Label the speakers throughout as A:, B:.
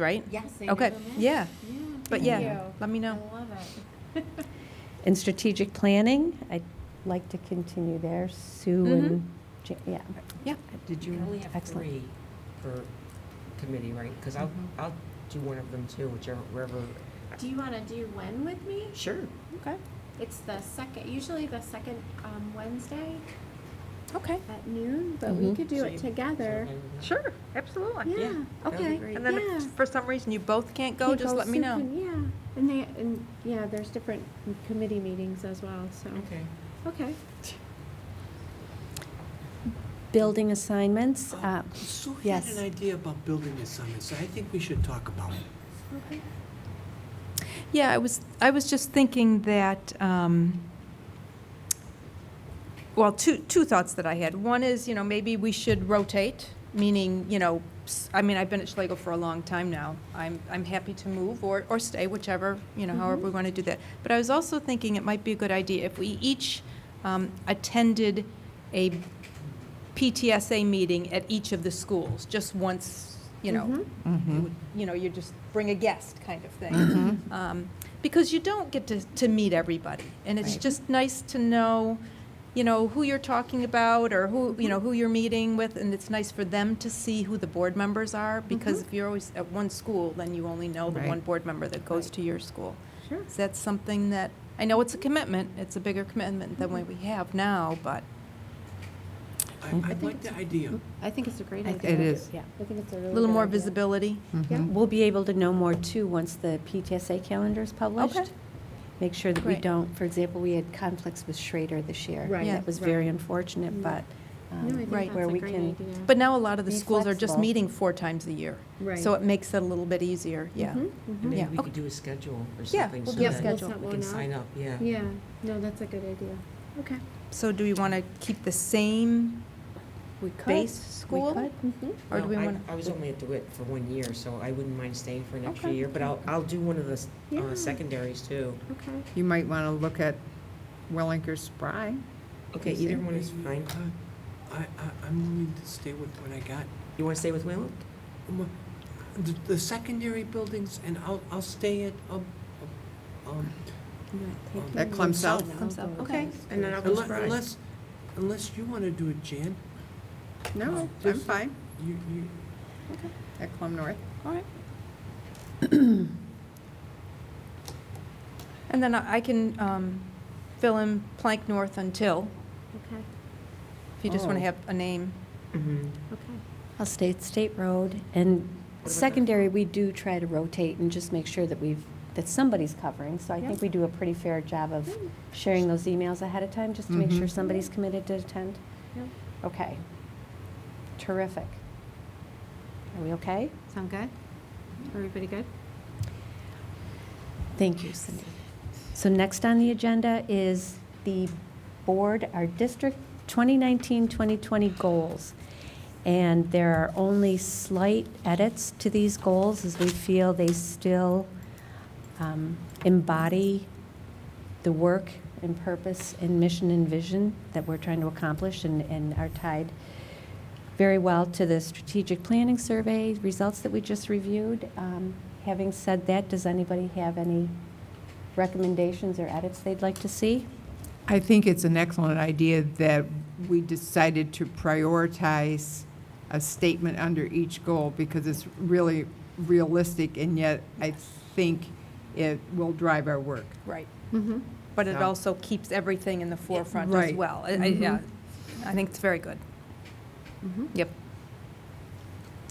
A: right?
B: Yes.
A: Okay, yeah, but yeah, let me know.
B: I love it.
C: And strategic planning, I'd like to continue there, Sue
B: Mm-hmm.
A: Mhm.
C: and, Ja- yeah.
D: Did you
C: Yeah,
D: only have
C: excellent.
D: three per committee, right? Because I'll,
A: Mm-hmm.
D: I'll do one of them too, whichever, wherever.
B: Do you want to do when with me?
D: Sure.
A: Okay,
B: It's the second, usually the second um, Wednesday
A: okay.
B: at noon, but we
A: Mm-hmm.
C: Mhm.
B: could do it
D: So you-
B: together.
A: Sure, absolutely.
B: Yeah,
D: that'd be
B: okay,
D: great.
A: And then
B: yeah.
A: if for some reason you both can't go,
B: Can't
A: just
B: go,
A: let me
B: Sue
A: know.
B: can- Yeah, and they, and, yeah, there's different committee meetings as well, so,
D: Okay.
B: okay.
C: Building assignments, uh,
E: Sue had
C: yes.
E: an idea about building assignments, I think we should talk about it.
A: Yeah, I was, I was just thinking that, um, well, two, two thoughts that I had. One is, you know, maybe we should rotate, meaning, you know, s- I mean, I've been at Schlegel for a long time now. I'm, I'm happy to move or, or stay, whichever, you know, however we
B: Mm-hmm.
A: want to do that. But I was also thinking it might be a good idea if we each um, attended a PTSA meeting at each of the schools, just once, you know, you would- you know, you just bring a guest kind of thing. Um, Because you don't get to, to meet everybody, and it's
C: Right.
A: just nice to know, you know, who you're talking about, or who, you know, who you're meeting with, and it's nice for them to see who the board members are, because if you're always at one school, then you only know the one board member that goes to your school.
B: Sure.
A: So that's something that, I know it's a commitment, it's a bigger commitment than what we have now, but
E: I, I like the idea.
B: I think it's a great
C: I
B: idea.
C: think
F: It is.
C: Yeah.
B: I think it's a really
A: a little
B: good
A: more
B: idea.
A: visibility.
B: Yeah.
C: We'll be able to know more too, once the PTSA calendar is
A: Okay.
C: published. Make sure that we
A: Great.
C: don't, for example, we had conflicts with Schrader this year.
B: Right. Mm-hmm.
A: Yeah.
C: That was very unfortunate, but. um,
B: No, I think
A: Right.
B: that's
C: where
B: a
C: we
B: great
C: can-
B: idea.
A: But now a lot of the
C: Be
A: schools are just
C: flexible.
A: meeting four times a year.
B: Right.
A: So it makes it a little bit easier, yeah.
B: Mhm, mhm.
D: And
A: Yeah,
D: Maybe we
A: okay.
D: could do a schedule or
A: Yeah,
D: something
A: we'll
D: so
A: do a
B: Yeah,
D: that
B: we'll
A: schedule.
B: set
D: we
B: one
D: can sign up, yeah.
B: Yeah, no, that's a good idea. Okay.
A: So do we want to keep the same
C: We could.
A: base
C: We
A: school?
C: could.
B: Mhm.
A: Or
D: No,
A: do we
D: I-
A: want
D: I was only at DeWitt for one year, so I wouldn't mind staying for an extra
A: Okay.
D: year, but I'll, I'll do one of the s-
B: Yeah.
D: uh, secondaries too.
B: Okay.
F: You might want to look at Wellinger Spry.
D: Okay, either one is fine.
E: uh, I, I, I'm willing to stay with what I got.
D: You want to stay with Wayland?
E: Um, The, the secondary buildings, and I'll, I'll stay at, um, um,
F: At Clem South.
A: Clem South,
B: Okay.
D: And then I'll go
E: unless,
D: Spry.
E: unless, unless you wanna do it, Jan,
F: No, I'm fine.
E: you, you,
F: At Clem North.
A: to? All right. And then I I can um, fill in Plank North until,
B: Okay,
A: if you just want to
F: Oh.
A: have a name. Mm-hmm.
D: Mhm.
B: okay.
C: I'll stay at State Road. And
D: that?
C: secondary, we do try to rotate and just make sure that we've, that somebody's covering. So I
B: Yeah.
C: think we do a pretty fair job of sharing those emails ahead of time, just to make
F: Mhm.
C: sure somebody's committed to attend.
B: Yeah.
C: Okay. Terrific. Are we okay?
B: Sound good? Everybody good?
C: Thank you, Cindy. So next on the agenda is the board, our district 2019-2020 goals. And there are only slight edits to these goals as we feel they still um, embody the work and purpose and mission and vision that we're trying to accomplish and, and are tied very well to the strategic planning survey results that we just reviewed. Um, Having said that, does anybody have any recommendations or edits they'd like to see?
F: I think it's an excellent idea that we decided to prioritize a statement under each goal because it's really realistic and yet I think it will drive our work.
A: Right.
B: Mm-hmm.
A: But it
F: So-
A: also keeps everything in the forefront as
F: Right.
A: well. I- I- Yeah, I think it's very good.
B: Mhm.
A: Yep.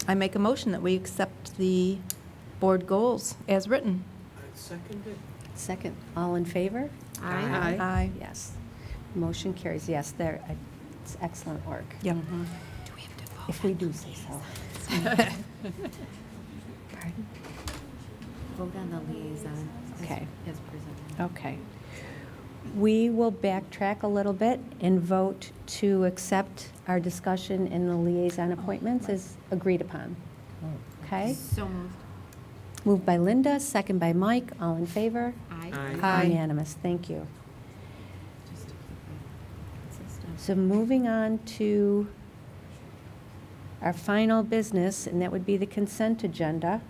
A: I make a motion that we accept the board goals as written.
E: I uh, second it.
C: Second. All in favor?
B: Aye.
A: Aye.
C: Yes. Motion carries, yes, there, it's excellent work,
A: Yep.
C: if we do say so. Pardon?
G: Vote on the liaison as-
C: Okay.
G: as presented.
C: Okay. We will backtrack a little bit and vote to accept our discussion in the liaison appointments as agreed upon. Okay?
G: So moved.
C: Moved by Linda, second by Mike, all in favor?
G: Aye.
A: Aye.
C: Unanimous, thank you.
G: Just to keep it consistent.
C: So moving on to our final business, and that would be the consent agenda.